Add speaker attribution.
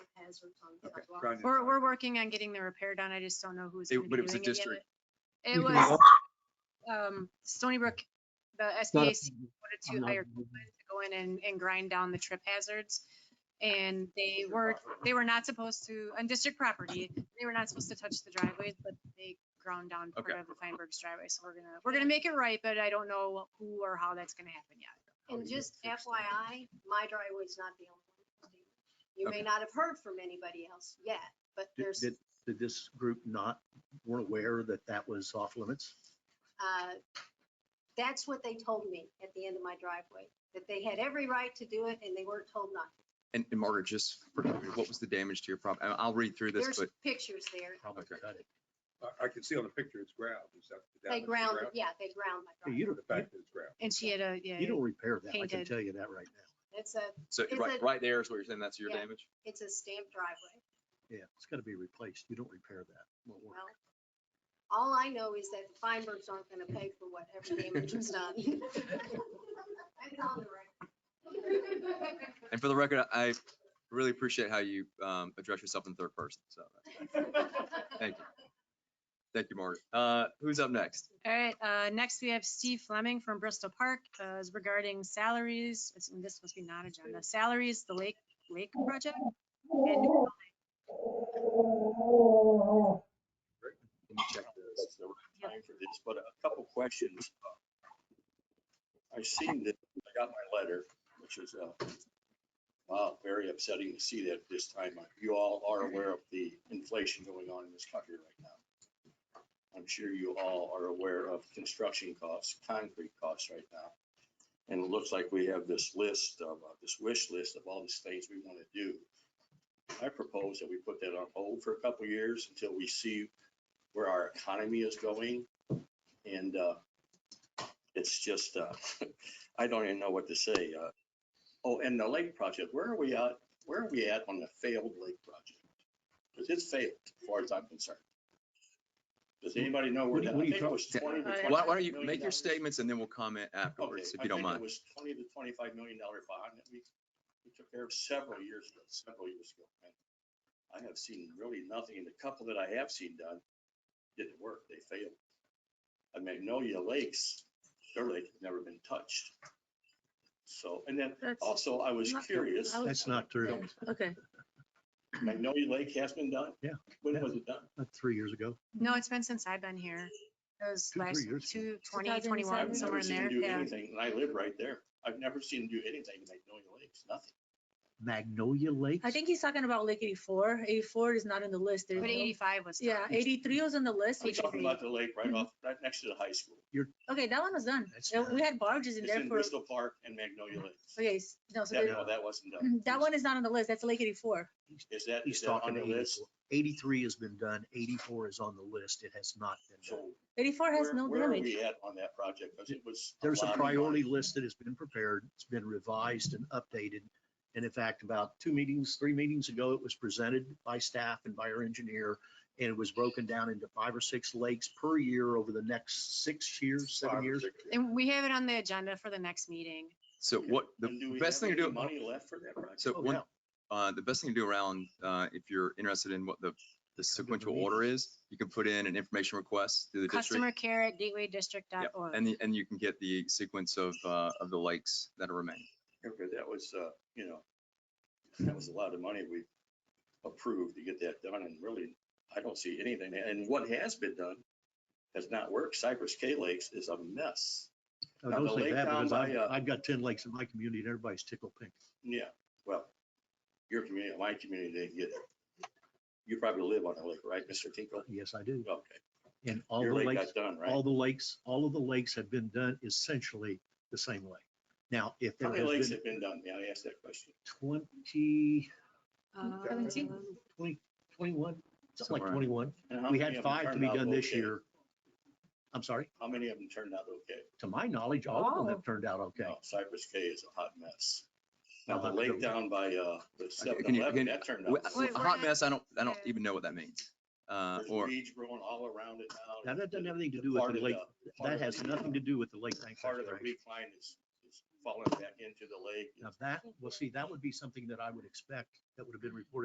Speaker 1: sensors on
Speaker 2: Okay,
Speaker 1: sidewalks.
Speaker 2: grounded.
Speaker 3: We're, we're working on getting the repair done. I just don't know who's.
Speaker 2: They-
Speaker 3: gonna be
Speaker 2: but it was a
Speaker 3: doing yet.
Speaker 2: district.
Speaker 3: It
Speaker 4: Mhm.
Speaker 3: was, um, Stony Brook, the
Speaker 4: not a-
Speaker 3: SBAC wanted to hire people to go in and, and grind down the trip hazards. And they were, they were not supposed to, on district property, they were not supposed to touch the driveways, but they ground down part
Speaker 2: Okay.
Speaker 3: of the Feinberg's driveway. So we're gonna, we're gonna make it right, but I don't know who or how that's gonna happen yet.
Speaker 1: And just FYI, my driveway's not the only one. You may
Speaker 2: Okay.
Speaker 1: not have heard from anybody else yet, but
Speaker 5: Did,
Speaker 1: there's,
Speaker 5: did, did this group not, weren't aware that that was off limits?
Speaker 1: uh, that's what they told me at the end of my driveway, that they had every right to do it and they weren't told not. to.
Speaker 2: And and Margaret, just, for- what was the damage to your property? I'll read through this,
Speaker 1: There's
Speaker 2: but
Speaker 1: pictures there.
Speaker 5: Probably
Speaker 2: Okay.
Speaker 5: cut it.
Speaker 6: I, I can see on the picture it's ground, is that?
Speaker 1: They
Speaker 6: that was the
Speaker 1: ground, yeah, they ground my
Speaker 5: Hey,
Speaker 1: driveway.
Speaker 5: You don't,
Speaker 6: The fact that it's ground.
Speaker 3: And she had a, yeah.
Speaker 5: you don't repair that. I can
Speaker 3: Painted.
Speaker 5: tell you that right now.
Speaker 1: It's a,
Speaker 2: so
Speaker 1: Is
Speaker 2: right,
Speaker 1: it-
Speaker 2: right there is what you're saying, that's your
Speaker 1: Yeah.
Speaker 2: damage?
Speaker 1: it's a stamped driveway.
Speaker 5: Yeah, it's gotta be replaced. You don't repair that. Won't work.
Speaker 1: Well, all I know is that the Feinbergs aren't gonna pay for whatever damage was done. That's on the record.
Speaker 2: And for the record, I really appreciate how you um, address yourself in third person, so, thank you. Thank you, Margaret. Uh, Who's up next?
Speaker 3: All right, uh, next we have Steve Fleming from Bristol Park, uh, is regarding salaries, it's- this must be not agenda, salaries, the lake, lake project. and new
Speaker 2: Let me check this.
Speaker 7: that's the right time for this, but a couple questions. I seen that, I got my letter, which is, uh, wow, very upsetting to see that this time. Uh, You all are aware of the inflation going on in this country right now. I'm sure you all are aware of construction costs, concrete costs right now. And it looks like we have this list of, uh, this wish list of all these things we want to do. I propose that we put that on hold for a couple years until we see where our economy is going. And uh, it's just, uh, I don't even know what to say. Uh, Oh, and the lake project, where are we at? Where are we at on the failed lake project? Because it's failed, as far as I'm concerned. Does anybody know where
Speaker 5: What
Speaker 7: that?
Speaker 5: are you- what are you
Speaker 7: I think it was
Speaker 2: talking-
Speaker 7: 20 to
Speaker 3: Why-
Speaker 2: Why why don't
Speaker 7: 25
Speaker 2: you
Speaker 7: million
Speaker 2: make your
Speaker 7: dollars.
Speaker 2: statements and then we'll comment
Speaker 7: Okay,
Speaker 2: afterwards, if
Speaker 7: I
Speaker 2: you don't mind.
Speaker 7: think It was twenty to twenty-five million dollar bond that we, we took care of several years ago, several years ago. and I have seen really nothing, and the couple that I have seen done didn't work, they failed. I Magnolia Lakes, their lake has never been touched. So, and then
Speaker 3: That's-
Speaker 7: also I was
Speaker 3: Not-
Speaker 7: curious,
Speaker 3: I was-
Speaker 5: That's not true.
Speaker 3: Okay.
Speaker 7: Magnolia Lake has been done?
Speaker 5: Yeah,
Speaker 7: When
Speaker 5: yeah.
Speaker 7: was it done?
Speaker 5: Not three years ago.
Speaker 3: No, it's been since I've been here, it was
Speaker 5: Two, three
Speaker 3: last,
Speaker 5: years ago.
Speaker 3: two, twenty, twenty-one,
Speaker 7: I've
Speaker 3: somewhere
Speaker 7: never
Speaker 3: in
Speaker 7: seen them
Speaker 3: there,
Speaker 7: do
Speaker 3: yeah.
Speaker 7: anything, and I live right there. I've never seen them do anything to Magnolia Lakes, nothing.
Speaker 5: Magnolia Lakes?
Speaker 8: I think he's talking about like 84. 84 is not on the list. There's
Speaker 3: But
Speaker 8: no-
Speaker 3: eighty-five was.
Speaker 8: Yeah,
Speaker 3: done.
Speaker 8: 83 was on the list.
Speaker 7: I'm
Speaker 8: which is
Speaker 7: talking
Speaker 8: the-
Speaker 7: about the lake
Speaker 3: Mm-hmm.
Speaker 7: right off, right next to the high school.
Speaker 8: Okay, that one was done.
Speaker 5: That's
Speaker 8: Uh,
Speaker 5: not-
Speaker 8: We had barges in
Speaker 7: It's
Speaker 8: there
Speaker 7: in
Speaker 8: for,
Speaker 7: Bristol Park and Magnolia Lakes.
Speaker 8: okay, s- no, so
Speaker 7: That,
Speaker 8: there- Mm-hmm.
Speaker 7: no, that wasn't done.
Speaker 8: that one is not on the list. That's Lake 84.
Speaker 7: Is that, is
Speaker 5: He's
Speaker 7: that
Speaker 5: talking
Speaker 7: on the list?
Speaker 5: 84. Eighty-three has been done. Eighty-four is on the list. It has not been
Speaker 7: So
Speaker 5: done.
Speaker 8: 84 has
Speaker 7: where,
Speaker 8: no
Speaker 7: where are
Speaker 8: damage.
Speaker 7: we at on that project? Because it was.
Speaker 5: There's a
Speaker 7: lot of money.
Speaker 5: priority list that has been prepared. It's been revised and updated. And in fact, about two meetings, three meetings ago, it was presented by staff and by our engineer. And it was broken down into five or six lakes per year over the next six years, seven
Speaker 7: Five or
Speaker 5: years.
Speaker 7: six years.
Speaker 3: And we have it on the agenda for the next meeting.
Speaker 2: So
Speaker 7: Okay.
Speaker 2: what,
Speaker 7: And
Speaker 2: the
Speaker 7: we
Speaker 2: best
Speaker 7: have
Speaker 2: thing to do.
Speaker 7: any Money left for that project?
Speaker 2: So
Speaker 5: Oh,
Speaker 2: one,
Speaker 5: yeah.
Speaker 2: uh, the best thing to do around, uh, if you're interested in what the, the sequential order is, you can put in an information request through the district.
Speaker 3: Customer care at gatewaydistrict.org.
Speaker 2: Yep, And, the- and you can get the sequence of, uh, of the lakes that are remaining.
Speaker 7: Okay, that was, uh, you know, that was a lot of money we approved to get that done and really, I don't see anything. And what has been done has not worked. Cypress K Lakes is a mess.
Speaker 5: Oh,
Speaker 7: Now, the
Speaker 5: Don't say
Speaker 7: lake
Speaker 5: that
Speaker 7: down
Speaker 5: because
Speaker 7: by,
Speaker 5: I've,
Speaker 7: uh,
Speaker 5: I've got ten lakes in my community and everybody's tickle pink.
Speaker 7: Yeah, well, your community, my community didn't get it. You probably live on a lake, right, Mr. Tinkle?
Speaker 5: Yes, I do.
Speaker 7: Okay,
Speaker 5: And all the
Speaker 7: your lake
Speaker 5: lakes,
Speaker 7: got done, right?
Speaker 5: all the lakes, all of the lakes have been done essentially the same way. Now, if
Speaker 7: How
Speaker 5: there
Speaker 7: many lakes
Speaker 5: has been
Speaker 7: have been done? May I ask that question?
Speaker 5: twenty,
Speaker 3: Uh,
Speaker 1: Seventeen.
Speaker 5: twenty, twenty-one, something like
Speaker 2: Somewhere.
Speaker 5: twenty-one.
Speaker 7: And how
Speaker 5: We
Speaker 7: many
Speaker 5: had
Speaker 7: of them
Speaker 5: five to
Speaker 7: turned
Speaker 5: be
Speaker 7: out
Speaker 5: done this
Speaker 7: okay?
Speaker 5: year. I'm sorry,
Speaker 7: How many of them turned out okay?
Speaker 5: to my knowledge, all
Speaker 7: Oh.
Speaker 5: of them have turned out okay.
Speaker 7: No, Cypress K is a hot mess. Now,
Speaker 5: I'll
Speaker 7: the
Speaker 5: have to
Speaker 7: lake
Speaker 5: go-
Speaker 7: down by, uh, the
Speaker 2: can
Speaker 7: seven
Speaker 2: you- can-
Speaker 7: eleven, that turned
Speaker 2: Wh-
Speaker 3: Wait,
Speaker 7: out.
Speaker 2: A
Speaker 3: we're
Speaker 7: fine.
Speaker 2: hot
Speaker 3: not-
Speaker 2: mess, I don't, I don't
Speaker 3: Yeah.
Speaker 2: even know what that means. Uh,
Speaker 7: There's
Speaker 2: or,
Speaker 7: weeds growing all around it now.
Speaker 5: Now, that doesn't have anything to do with
Speaker 7: Part
Speaker 5: the
Speaker 7: of
Speaker 5: lake.
Speaker 7: part of
Speaker 5: That has
Speaker 7: the-
Speaker 5: nothing to do with the lake bank
Speaker 7: Part of the
Speaker 5: restoration.
Speaker 7: recline is, is falling back into the lake.
Speaker 5: Now, that, well, see, that would be something that I would expect that would have been reported